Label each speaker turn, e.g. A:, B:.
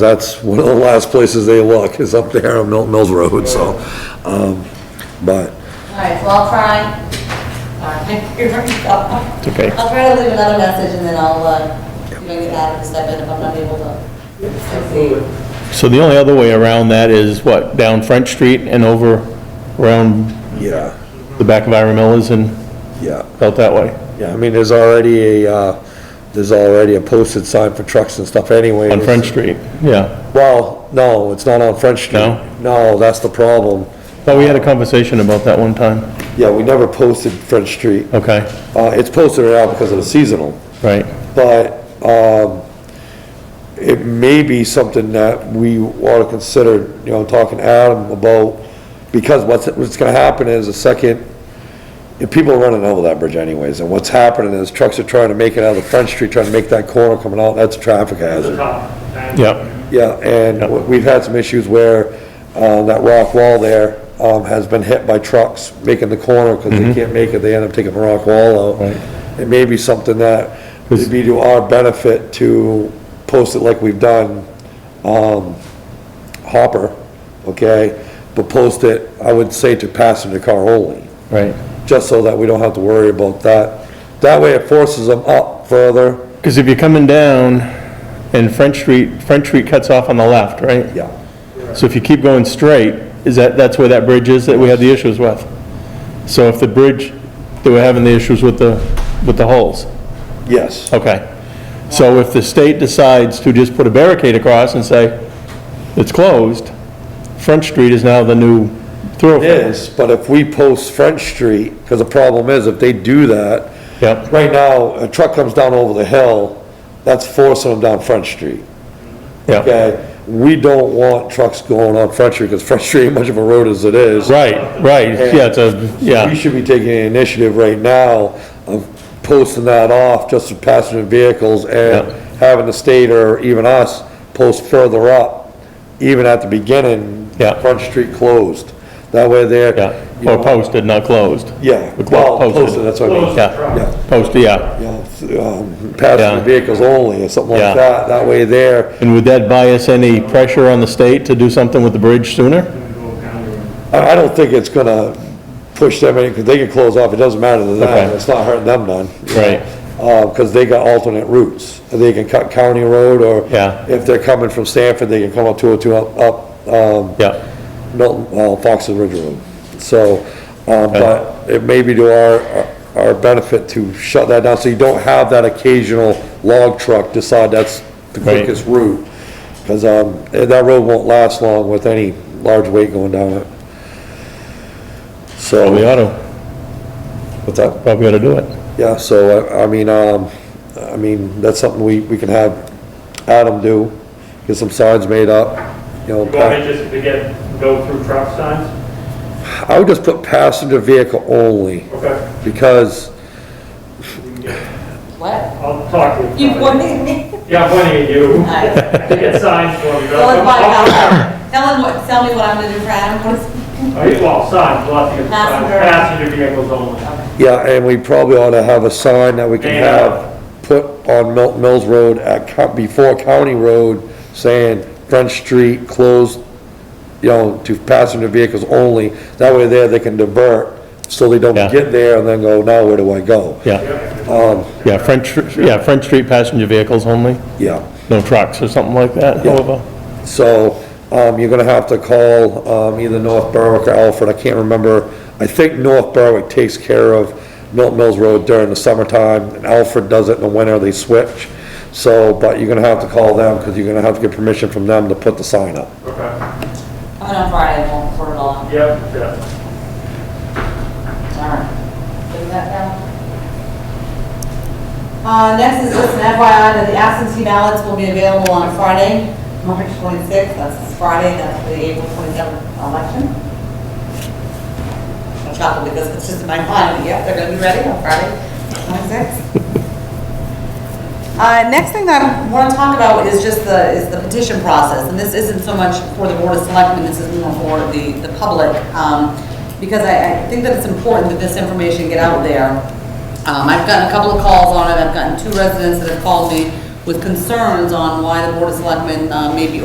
A: That's one of the last places they look, is up there on Milton Mills Road, so, um, but,
B: All right, so I'll try. Sorry, here we go.
C: It's okay.
B: I'll try to leave another message and then I'll, uh, you know, get Adam to step in if I'm not able to succeed.
C: So the only other way around that is what, down French Street and over around
A: yeah,
C: the back of Ira Miller's and
A: yeah.
C: out that way?
A: Yeah, I mean, there's already a, uh, there's already a posted sign for trucks and stuff anyway.
C: On French Street, yeah.
A: Well, no, it's not on French Street.
C: No?
A: No, that's the problem.
C: Thought we had a conversation about that one time.
A: Yeah, we never posted French Street.
C: Okay,
A: Uh, it's posted now because of the seasonal,
C: right.
A: but, um, it may be something that we ought to consider, you know, talking to Adam about, because what's, what's gonna happen is a second, if people are running over that bridge anyways, and what's happening is trucks are trying to make it out of French Street, trying to make that corner coming out, that's a traffic hazard.
C: Yep,
A: Yeah, and w- we've had some issues where, uh, that rock wall there, um, has been hit by trucks making the corner because they can't make it, they end up taking the rock wall out.
C: Right.
A: It may be something that would be to our benefit to post it like we've done, um, Hopper, okay? But post it, I would say to passenger car only,
C: right.
A: just so that we don't have to worry about that. That way it forces them up further.
C: Because if you're coming down and French Street, French Street cuts off on the left, right?
A: Yeah.
C: So if you keep going straight, is that, that's where that bridge is that we had the issues with? So if the bridge, they were having the issues with the, with the holes?
A: Yes.
C: Okay. So if the state decides to just put a barricade across and say, it's closed, Front Street is now the new thoroughfare.
A: is, but if we post French Street, because the problem is, if they do that,
C: Yep,
A: right now, a truck comes down over the hill, that's forcing them down French Street,
C: yep.
A: okay? We don't want trucks going on French Street, because French Street ain't much of a road as it is.
C: Right, right, yeah, it's a,
A: We
C: yeah,
A: should be taking an initiative right now of posting that off just to passenger vehicles and
C: Yeah.
A: having the state or even us post further up, even at the beginning.
C: Yeah.
A: Front Street closed. That way they're. you
C: yeah. Or
A: know,
C: posted, not closed.
A: Yeah,
C: We're clo-
A: well, posted, that's what I mean.
C: Yeah,
A: Yeah.
C: posted, yeah.
A: you know, um,
C: Yeah.
A: passenger vehicles only or something
C: Yeah.
A: like that, that way there.
C: And would that bias any pressure on the state to do something with the bridge sooner?
A: I, I don't think it's gonna push them any, because they can close off, it doesn't matter to them,
C: Okay.
A: it's not hurting them none.
C: Right.
A: because they got alternate routes, they can cut County Road or
C: Yeah.
A: if they're coming from Sanford, they can come up 202 up, up, um,
C: Yeah,
A: Milton, well, uh, Fox and Ridge Road. So, um, but it may be to our, our benefit to shut that down, so you don't have that occasional log truck decide that's the
C: Right.
A: quickest route. Because, um, eh, that road won't last long with any large weight going down it.
C: probably
A: So,
C: ought to,
A: what's that?
C: probably ought to do it.
A: Yeah, so, I, I mean, um, I mean, that's something we, we can have Adam do, get some signs made up, you know.
D: You want me just to get, go through truck signs?
A: I would just put passenger vehicle only.
D: Okay,
A: because,
B: What?
D: I'll talk to you.
B: You pointing me?
D: Yeah, I'm pointing at you.
B: All right.
D: Get signs for me. Oh,
B: Tell us why, Adam. tell him what, tell me what I'm gonna do for Adam, what is,
D: Are you- Oh, Well, signs, lots of signs,
B: Passenger.
D: passenger vehicles only.
A: yeah, and we probably ought to have a sign that we can
D: Yeah.
A: have put on Milton Mills Road at, co- before County Road, saying French Street closed, you know, to passenger vehicles only. That way there, they can divert, so they don't
C: Yeah.
A: get there and then go, now where do I go?
C: Yeah. Yeah, French, yeah, French Street passenger vehicles only,
A: Yeah,
C: no trucks or something like that, however.
A: so, um, you're gonna have to call, um, either North Berwick or Alfred, I can't remember. I think North Berwick takes care of Milton Mills Road during the summertime, and Alfred does it in the winter, they switch. So, but you're gonna have to call them, because you're gonna have to get permission from them to put the sign up.
D: Okay,
B: coming on Friday, I won't put it all on.
D: yep, yep.
B: Alright. Bring that down. Uh, next is just an FYI that the absentee ballots will be available on Friday, March 26th, that's this Friday, that's for the April 27th election. I'm shocked because it's just in my mind, yeah, they're gonna be ready on Friday, 26th. Uh, next thing that I want to talk about is just the, is the petition process, and this isn't so much for the Board of Selectmen, this is more for the, the public, um, because I, I think that it's important that this information get out there. Um, I've gotten a couple of calls on it, I've gotten two residents that have called me with concerns on why the Board of Selectmen, uh, may be